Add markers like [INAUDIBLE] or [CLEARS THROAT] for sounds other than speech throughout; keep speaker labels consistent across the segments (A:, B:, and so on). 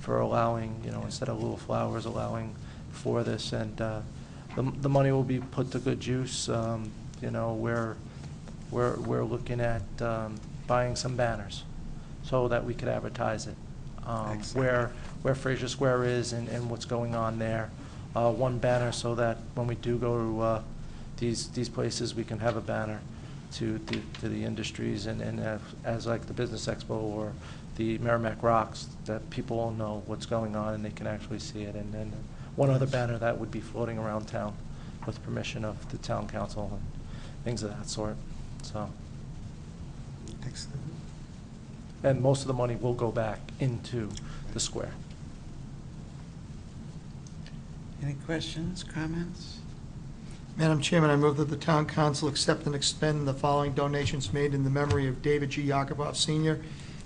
A: for allowing, you know, instead of little flowers, allowing for this, and uh, the the money will be put to good use. Um, You know, we're, we're we're looking at um, buying some banners so that we could advertise it. um,
B: Excellent.
A: Where, where Fraser Square is and and what's going on there. Uh, One banner so that when we do go to uh, these, these places, we can have a banner to, to to the industries and, and have- as like the Business Expo or the Merrimack Rocks, that people will know what's going on and they can actually see it. And then one other banner that would be floating around town with permission of the town council and things of that sort, so.
B: Excellent.
A: And most of the money will go back into the square.
B: Any questions, comments?
C: Madam Chairman, I move that the town council accept and expend the following donations made in the memory of David G. Yakubov Senior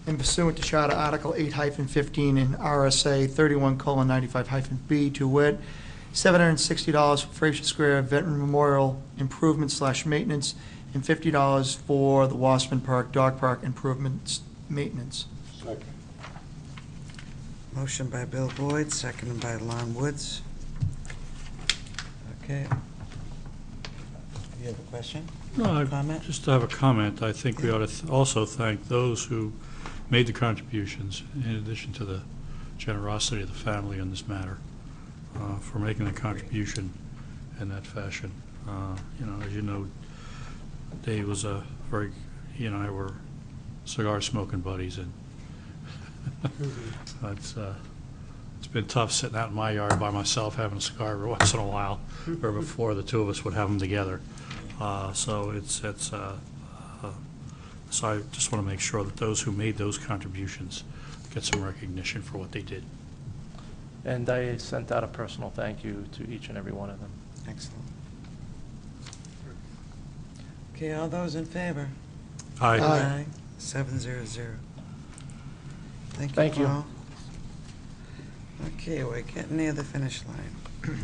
C: in pursuant to Charter Article eight fifteen and RSA thirty-one ninety-five B to wit, seven hundred and sixty dollars for Fraser Square Veteran Memorial Improvement slash Maintenance and fifty dollars for the Wasserman Park Dog Park Improvements Maintenance.
D: Second.
B: Motion by Bill Boyd, seconded by Lon Woods. Okay. You have a question?
E: No, I
B: Comment?
E: just have a comment. I think we ought to th- also thank those who made the contributions, in addition to the generosity of the family in this matter, uh, for making the contribution in that fashion. Uh, You know, as you know, Dave was a very, he and I were cigar-smoking buddies, and [LAUGHS] it's, uh, it's been tough sitting out in my yard by myself having a cigar every [LAUGHS] once in a while, or before the two of us would have them together. Uh, So it's, it's, uh, uh, so I just want to make sure that those who made those contributions get some recognition for what they did.
A: And I sent out a personal thank you to each and every one of them.
B: Excellent. Okay, all those in favor?
C: Aye.
B: Seven zero zero. Thank
A: Thank
B: you,
A: you.
B: Paul. Okay, we're getting near the finish line. [CLEARS THROAT]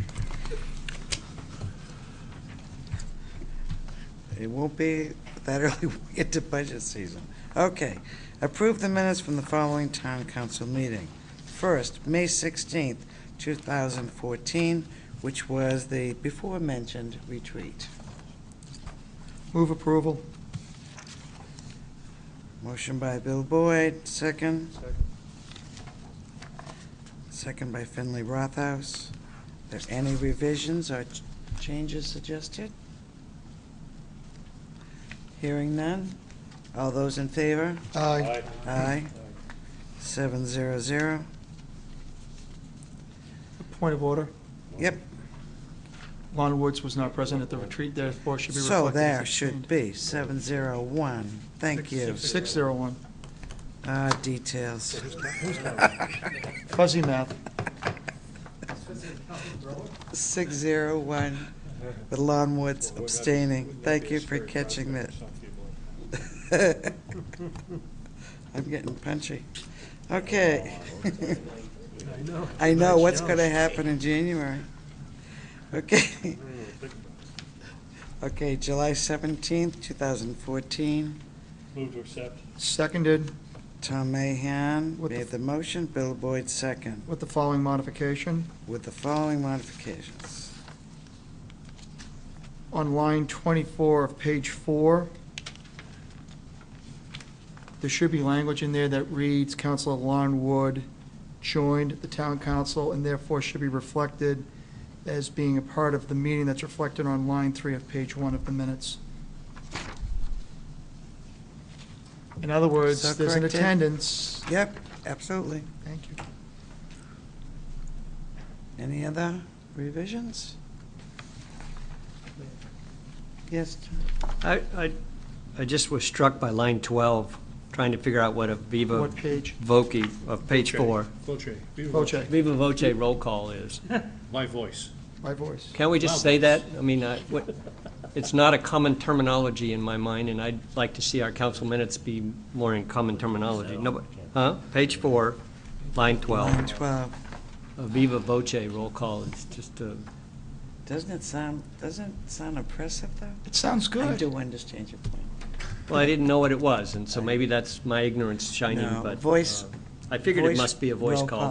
B: It won't be that [LAUGHS] early when we get to budget season. Okay, approve the minutes from the following town council meeting. First, May sixteenth, two thousand fourteen, which was the before-mentioned retreat.
C: Move approval.
B: Motion by Bill Boyd, second. Second by Finley Rothaus. Are there any revisions or ch- changes suggested? Hearing none. All those in favor?
C: Aye.
B: Aye. Seven zero zero.
C: Point of order.
B: Yep,
C: Lon Woods was not present at the retreat, therefore should be reflected.
B: so
C: as
B: there
C: abstained.
B: should be, seven zero one. Thank you.
C: Six zero one.
B: Ah, details.
C: Fuzzy math.
B: [LAUGHS] Six zero one, with Lon Woods abstaining. Thank you for catching that. [LAUGHS] I'm getting punchy. Okay. I know what's going to happen in January. Okay. [LAUGHS] Okay, July 17th, 2014.
D: Move to accept.
C: Seconded
B: Tom Mahan
C: What the
B: made
C: f-
B: the motion, Bill Boyd second,
C: with the following modification.
B: with the following modifications.
C: On line 24 of page four, there should be language in there that reads, Councilor Lon Wood joined the town council and therefore should be reflected as being a part of the meeting that's reflected on line three of page one of the minutes. In other
B: So
C: words, there's an
B: corrected.
C: attendance.
B: Yep, absolutely.
C: Thank you.
B: Any other revisions? Yes, Tom?
F: I, I, I just was struck by line 12, trying to figure out what a viva
C: What page?
F: voce of page four,
E: Voce,
C: Voce,
F: viva voce roll call is.
E: my voice.
C: my voice.
F: Can't we just say that? I mean, I- what, it's not a common terminology in my mind, and I'd like to see our council minutes be more in common terminology. No, but- huh? Page four, line 12,
B: 12.
F: a viva voce roll call is just a,
B: Doesn't it sound, doesn't it sound oppressive, though?
C: It sounds good.
B: I do understand your point.
F: well, I didn't know what it was, and so maybe that's my ignorance shining,
B: No,
F: but.
B: voice-
F: uh, I figured it
B: voice
F: must be a voice
B: roll
F: call.